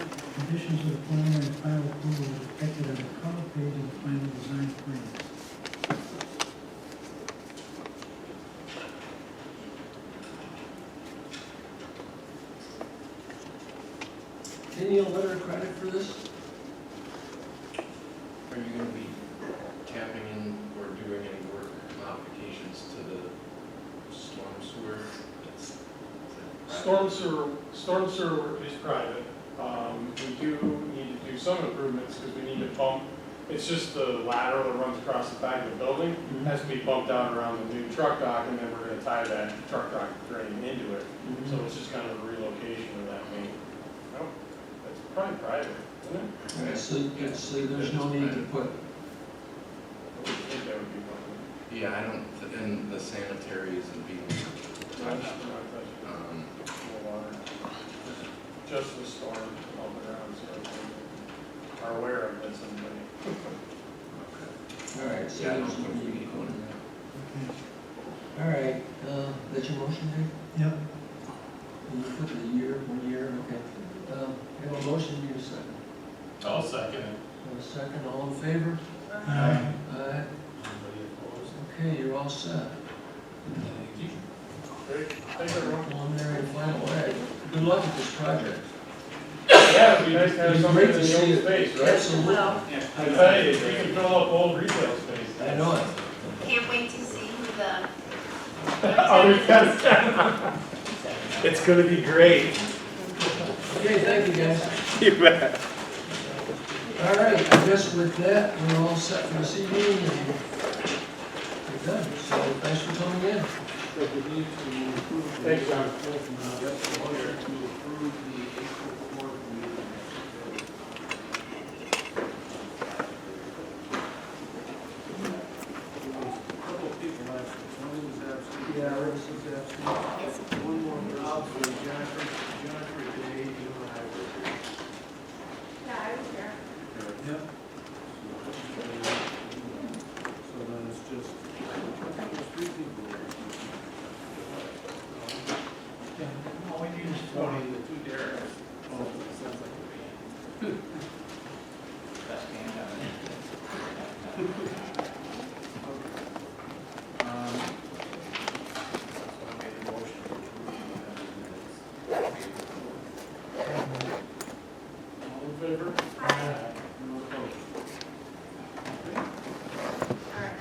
conditions of the plan and final approval are depicted on the cover page of the final design plan. Any letter of credit for this? Are you gonna be tapping in or doing any work modifications to the storm sewer? That's- is that private? Storm sewer, storm sewer work is private. Um, we do need to do some improvements because we need to bump, it's just the lateral that runs across the back of the building. Mm-hmm. Has to be bumped out around the new truck dock and then we're gonna tie that truck dock drain into it. So it's just kind of a relocation of that main. No, that's probably private, isn't it? All right, So, so there's no need to put, I would think that would be public. Yeah, I don't, th- and the sanitary isn't being Not- touched. not touching Um, the water. Just the storm all around, so we are aware of this and. okay. all right, so Yeah, I don't there's no think we need to need go in one. there. Okay, All right, uh, that's your motion, Dave? yep, You put the year, one year, okay. Um, I have a motion, you have a second. I'll second it. Have a second, all in favor? Aye. Aye. Anybody opposed? Okay, you're all set. Thank you. Great, thanks everyone. Preliminary and final way. Good luck with this project. Yeah, it'd be nice to have It'd be something great in to the see old it. space, right? Absolutely. I tell you, if you can fill up old retail space. I know it. Can't wait to see who the. Oh, we got it. It's gonna be great. Okay, thank you guys. All right, I guess with that, we're all set for this evening and we're done. So thanks for coming in. So we need to approve the. Thanks, John. Yes, order to approve the April fourth meeting. Couple people left, one was absent. Yeah, Rivers was absent. One more was absent, Jennifer, Jennifer Day, you and I were here. Yeah, I was here. yep. So then it's just, there's three people. All we need is Tony, the two Derek's. Oh, sounds like a band. Um, I made a motion to approve the minutes. All in favor? No opposed. All right.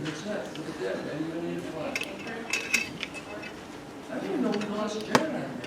That's it. Look at that, man. You don't need to fly. I didn't know we lost Jared on here.